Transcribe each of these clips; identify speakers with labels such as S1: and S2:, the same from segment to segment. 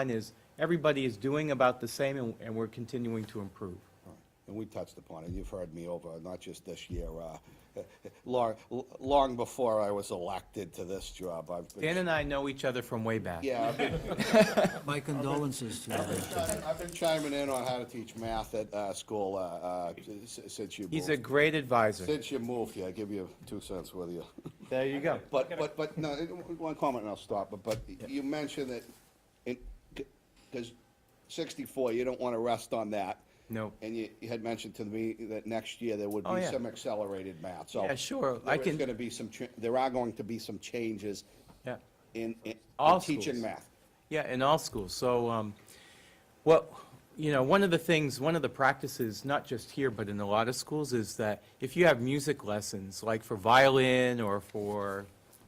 S1: line is, everybody is doing about the same, and, and we're continuing to improve.
S2: And we touched upon it, you've heard me over, not just this year, uh, long, long before I was elected to this job, I've
S1: Dan
S2: been.
S1: and I know each other from way back.
S2: Yeah, I've been-
S3: My condolences to you.
S2: I've been chiming in on how to teach math at uh, school uh, uh, s- since you moved.
S1: He's a great advisor.
S2: Since you moved here, I give you two cents with you.
S1: There you go.
S2: But, but, but, no, it- one comment and I'll stop, but, but you mentioned that, in, because sixty-four, you don't want to rest on that.
S1: No.
S2: And you, you had mentioned to me that next year there would
S1: Oh,
S2: be
S1: yeah.
S2: some accelerated math, so.
S1: Yeah, sure, I
S2: There is
S1: can-
S2: going to be some, cha- there are going to be some changes
S1: Yeah.
S2: in, in-
S1: All
S2: in teaching
S1: schools.
S2: math.
S1: Yeah, in all schools. So, um, what, you know, one of the things, one of the practices, not just here, but in a lot of schools, is that if you have music lessons, like for violin or for,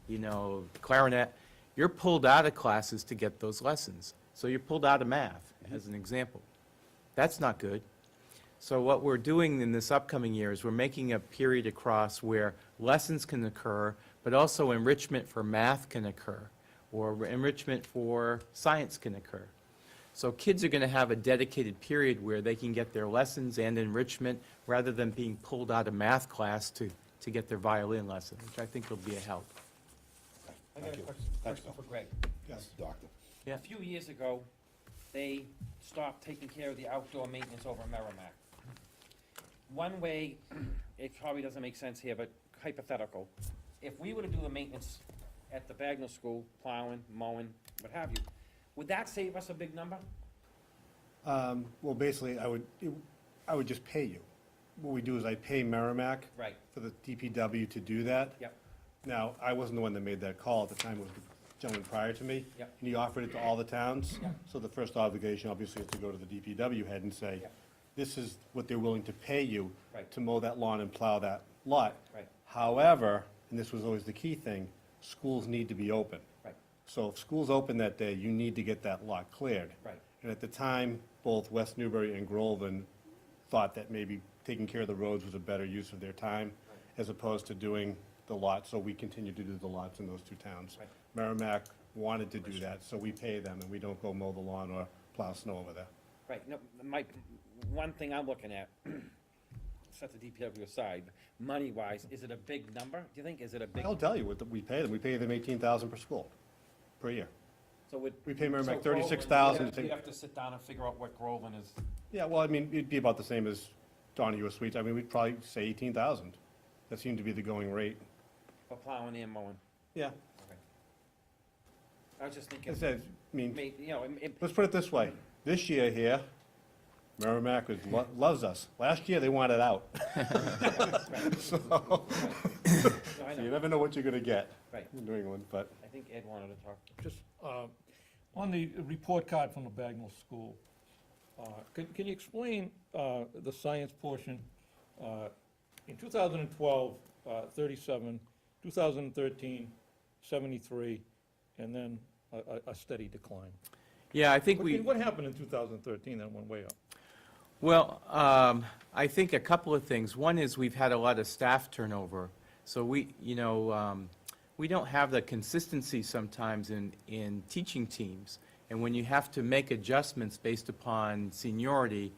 S1: you know, clarinet, you're pulled out of classes to get those lessons. So you're pulled out of math, as an example. That's not good. So what we're doing in this upcoming year is we're making a period across where lessons can occur, but also enrichment for math can occur, or enrichment for science can occur. So kids are going to have a dedicated period where they can get their lessons and enrichment, rather than being pulled out of math class to, to get their violin lesson, which I think will be a help.
S4: I got a question,
S2: Thanks,
S4: question for Greg.
S2: Yes. Doctor.
S1: Yeah.
S4: A few years ago, they stopped taking care of the outdoor maintenance over in Merrimack. One way, it probably doesn't make sense here, but hypothetical, if we were to do the maintenance at the Bagnell School, plowing, mowing, what have you, would that save us a big number?
S5: Um, Well, basically, I would, it- I would just pay you. What we do is I pay Merrimack.
S4: Right.
S5: For the DPW to do that.
S4: Yep.
S5: Now, I wasn't the one that made that call at the time, it was the gentleman prior to me.
S4: Yep.
S5: And he offered it to all the towns. So the first obligation, obviously, is to go to the DPW head and say,
S4: Yep.
S5: this is what they're willing to pay you.
S4: Right.
S5: To mow that lawn and plow that lot.
S4: Right.
S5: However, and this was always the key thing, schools need to be open.
S4: Right.
S5: So if school's open that day, you need to get that lot cleared.
S4: Right.
S5: And at the time, both West Newbury and Groveland thought that maybe taking care of the roads was a better use of their time as opposed to doing the lots, so we continue to do the lots in those two towns.
S4: Right.
S5: Merrimack wanted to do that, so we pay them and we don't go mow the lawn or plow snow over there.
S4: Right, no, my, one thing I'm looking at, set the DPW aside, money-wise, is it a big number, do you think, is it a big?
S5: I'll tell you what the- we pay them. We pay them eighteen thousand per school, per year.
S4: So would.
S5: We pay Merrimack
S4: so Groveland,
S5: 36,000
S4: you'd have-
S5: to-
S4: You'd have to sit down and figure out what Groveland is.
S5: Yeah, well, I mean, it'd be about the same as Donahue Suites. I mean, we'd probably say eighteen thousand. That seemed to be the going rate.
S4: For plowing and mowing.
S5: Yeah.
S4: I was just thinking,
S5: It says, I mean.
S4: may- you know, it- it-
S5: Let's put it this way, this year here, Merrimack was, lo- loves us. Last year, they wanted out. So,
S4: no, I
S5: you
S4: know,
S5: never know what you're gonna get
S4: Right.
S5: in New England, but,
S4: I think Ed wanted to talk.
S6: Just, uh, on the report card from the Bagnell School, uh, can, can you explain, uh, the science portion? Uh, In 2012, uh, 37, 2013, 73, and then a, a- a steady decline.
S1: Yeah, I think
S6: What-
S1: we.
S6: What happened in 2013 that went way up?
S1: Well, um, I think a couple of things. One is we've had a lot of staff turnover, so we, you know, um, we don't have the consistency sometimes in, in teaching teams. And when you have to make adjustments based upon seniority,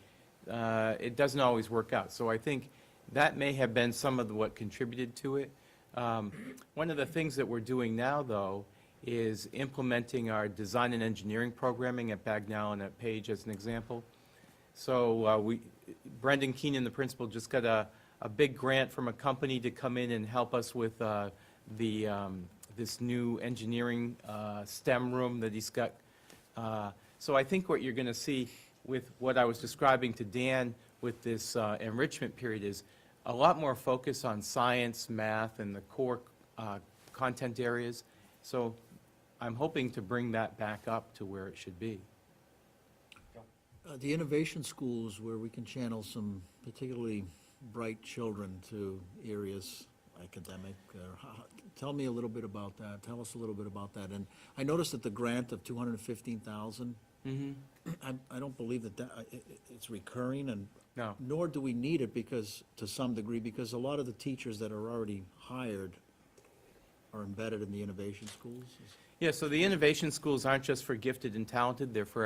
S1: uh, it doesn't always work out. So I think that may have been some of what contributed to it. Um, One of the things that we're doing now, though, is implementing our design and engineering programming at Bagnell and at Page as an example. So uh, we, Brendan Keenan, the principal, just got a, a big grant from a company to come in and help us with uh, the, um, this new engineering uh, STEM room that he's got. Uh, So I think what you're going to see with what I was describing to Dan with this uh, enrichment period is a lot more focus on science, math, and the core uh, content areas. So I'm hoping to bring that back up to where it should be.
S3: Uh, The innovation schools where we can channel some particularly bright children to areas academic, or ho- tell me a little bit about that, tell us a little bit about that. And I noticed that the grant of two hundred and fifteen thousand, I, I don't believe that that, I- i- i- it's recurring and.
S1: No.
S3: Nor do we need it because, to some degree, because a lot of the teachers that are already hired are embedded in the innovation schools. Is-
S1: Yeah, so the innovation schools aren't just for gifted and talented, they're for